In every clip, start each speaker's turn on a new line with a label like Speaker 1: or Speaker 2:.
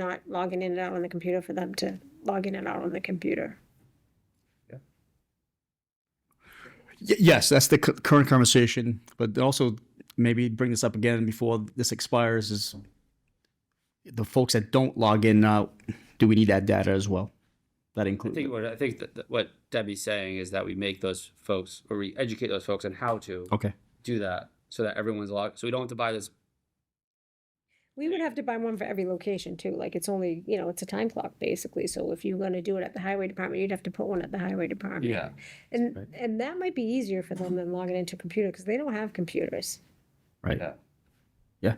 Speaker 1: not logging in and out on the computer for them to log in and out on the computer.
Speaker 2: Y- Yes, that's the cu- current conversation, but also maybe bring this up again before this expires is the folks that don't log in, uh, do we need that data as well? That
Speaker 3: I think
Speaker 2: includes,
Speaker 3: what I think that, that what Debbie's saying is that we make those folks or we educate those folks on how to
Speaker 2: okay.
Speaker 3: do that so that everyone's logged. So we don't have to buy this.
Speaker 1: We would have to buy one for every location too, like it's only, you know, it's a time clock basically, so if you're gonna do it at the highway department, you'd have to put one at the highway department. And, and that might be easier for them than logging into a computer, because they don't have computers.
Speaker 2: Right,
Speaker 3: Yeah.
Speaker 2: yeah.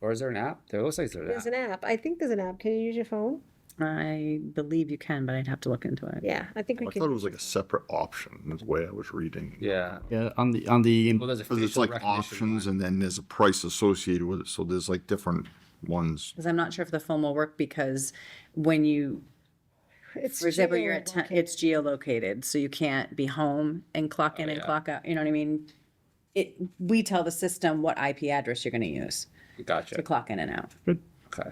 Speaker 3: Or is there an app? There looks like there's an app.
Speaker 1: There's an app, I think there's an app, can you use your phone?
Speaker 4: I believe you can, but I'd have to look into it.
Speaker 1: Yeah, I think we
Speaker 5: Oh, I thought it
Speaker 1: can,
Speaker 5: was like a separate option, is the way I was reading.
Speaker 3: yeah.
Speaker 2: Yeah, on the, on the,
Speaker 3: Well, there's a
Speaker 5: Cause it's
Speaker 3: facial
Speaker 5: like
Speaker 3: recognition
Speaker 5: options
Speaker 3: one.
Speaker 5: and then there's a price associated with it, so there's like different ones.
Speaker 4: Because I'm not sure if the phone will work because when you,
Speaker 1: it's
Speaker 4: for example, you're at,
Speaker 1: geolocated.
Speaker 4: te- it's geolocated, so you can't be home and clock in and clock out, you know what I mean? It, we tell the system what IP address you're gonna use to
Speaker 3: Gotcha.
Speaker 4: clock in and out.
Speaker 3: Okay.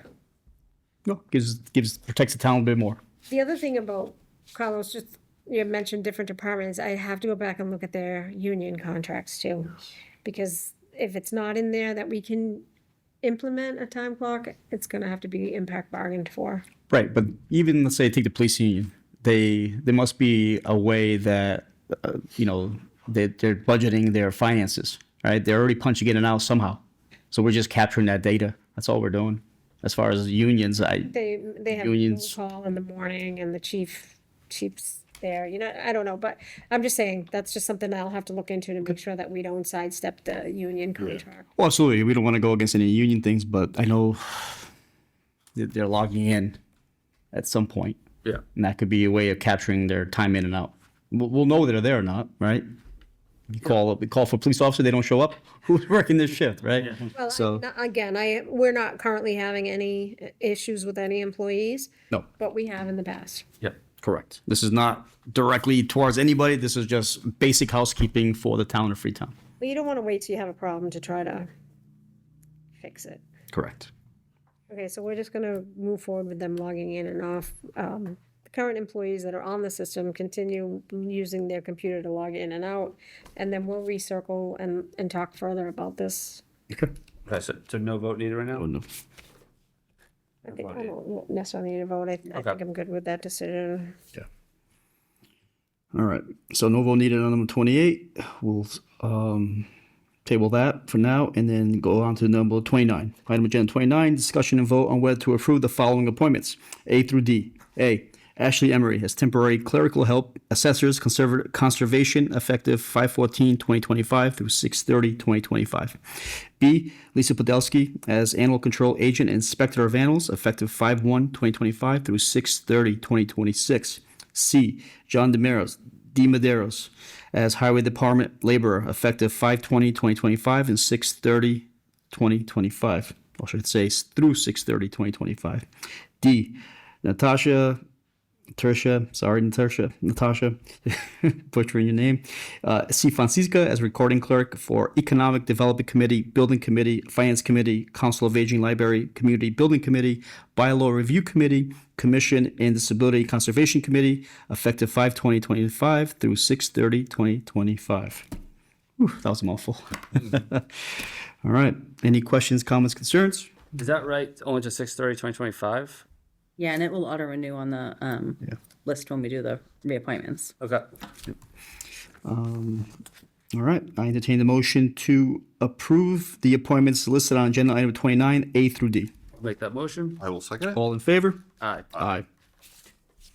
Speaker 2: no, gives, gives, protects the town a bit more.
Speaker 1: The other thing about Carlos, just you mentioned different departments, I have to go back and look at their union contracts too. Because if it's not in there that we can implement a time clock, it's gonna have to be impact bargained for.
Speaker 2: Right, but even let's say take the police union, they there must be a way that uh, you know they they're budgeting their finances, right? They're already punching in and out somehow, so we're just capturing that data. That's all we're doing. As far as unions, I
Speaker 1: They, they have a
Speaker 2: Unions.
Speaker 1: phone call in the morning and the chief, chief's there, you know, I don't know, but I'm just saying, that's just something I'll have to look into to make sure that we don't sidestep the union contract.
Speaker 2: well, absolutely we don't want to go against any union things, but I know that they're logging in at some point,
Speaker 3: Yeah.
Speaker 2: and that could be a way of capturing their time in and out. We'll, we'll know they're there or not, right? You call up, we call for police officer, they don't show up. Who's working this shift, right?
Speaker 1: Well, I- no, again, I, we're not currently having any uh, issues with any employees,
Speaker 2: No,
Speaker 1: but we have in the past.
Speaker 3: Yeah.
Speaker 2: correct. This is not directly towards anybody. This is just basic housekeeping for the town of Freetown.
Speaker 1: Well, you don't want to wait till you have a problem to try to fix it.
Speaker 2: Correct.
Speaker 1: Okay, so we're just gonna move forward with them logging in and off. Um, the current employees that are on the system continue using their computer to log in and out. And then we'll recircle and, and talk further about this.
Speaker 3: Okay. So, so no vote needed right now.
Speaker 2: Oh, no.
Speaker 1: I think, I don't necessarily need a vote. I, I think I'm good with that decision.
Speaker 2: All right. So no vote needed on number twenty-eight. We'll um, table that for now and then go on to number twenty-nine. Item agenda twenty-nine, discussion and vote on whether to approve the following appointments, A through D. A, Ashley Emery as temporary clerical help assessors conserv- conservation effective 2025 through 2025. B, Lisa Podolsky as animal control agent and inspector of animals effective 5-1-2025 through 2026. C. John Demaros, D. Maderos, as Highway Department laborer, effective 5/20/2025 and 6/30/2025, or should I say s- through 6/30/2025. D. Natasha, Tertia, sorry, Natasha, Natasha, butchering your name. Uh, C. Francisca as recording clerk for Economic Development Committee, Building Committee, Finance Committee, Council of Aging Library, Community Building Committee, Bylaw Review Committee, Commission and Disability Conservation Committee, effective 5 2025 through 6 30 2025. Whew, that was a mouthful. All right. Any questions, comments, concerns?
Speaker 3: Is that right? Only to 630, 2025?
Speaker 4: Yeah, and it will auto renew on the, um, list when we do the reappointments.
Speaker 3: Okay.
Speaker 2: All right, I entertain the motion to approve the appointments listed on agenda item twenty-nine, A through D.
Speaker 3: Make that motion.
Speaker 5: I will second it.
Speaker 2: All in favor?
Speaker 3: Aye.
Speaker 2: Aye.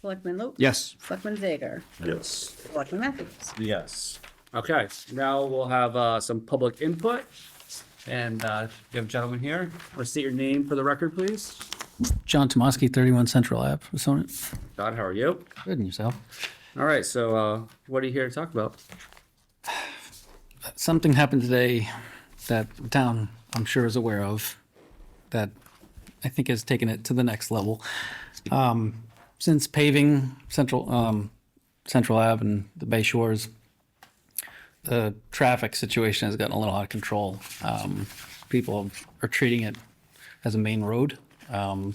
Speaker 4: Selectman Lopes?
Speaker 2: Yes.
Speaker 4: Selectman Zager?
Speaker 5: Yes.
Speaker 4: Selectman Matthews?
Speaker 6: Yes.
Speaker 3: Okay. Now we'll have uh, some public input. And uh, you have a gentleman here. Want to state your name for the record, please?
Speaker 7: John Tomoski, 31 Central Ave, Sonnet.
Speaker 3: John, how are you?
Speaker 7: Good, and yourself?
Speaker 3: All right. So uh, what are you here to talk about?
Speaker 7: Something happened today that the town, I'm sure, is aware of, that I think has taken it to the next level. Um, Since paving Central, um, Central Ave and the Bay Shores, the traffic situation has gotten a little out of control. Um, People are treating it as a main road. Um, um,